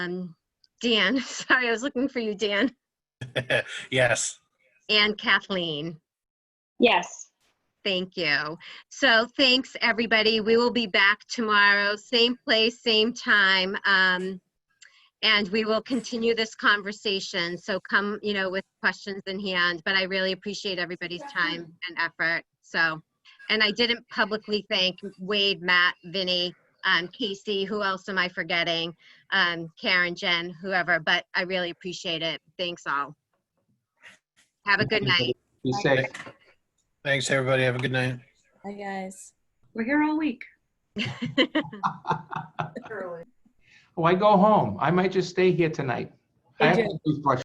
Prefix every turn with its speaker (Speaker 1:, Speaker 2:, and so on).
Speaker 1: um, Dan, sorry, I was looking for you, Dan,
Speaker 2: Yes.
Speaker 1: and Kathleen.
Speaker 3: Yes.
Speaker 1: Thank you. So thanks, everybody. We will be back tomorrow, same place, same time. Um, and we will continue this conversation. So come, you know, with questions in hand, but I really appreciate everybody's time and effort. So, and I didn't publicly thank Wade, Matt, Vinny, um, Casey, who else am I forgetting? Um, Karen, Jen, whoever, but I really appreciate it. Thanks all. Have a good night.
Speaker 4: Be safe.
Speaker 2: Thanks, everybody. Have a good night.
Speaker 5: Hi, guys.
Speaker 3: We're here all week.
Speaker 4: Oh, I go home. I might just stay here tonight. I
Speaker 5: You
Speaker 4: have
Speaker 5: do.
Speaker 4: a toothbrush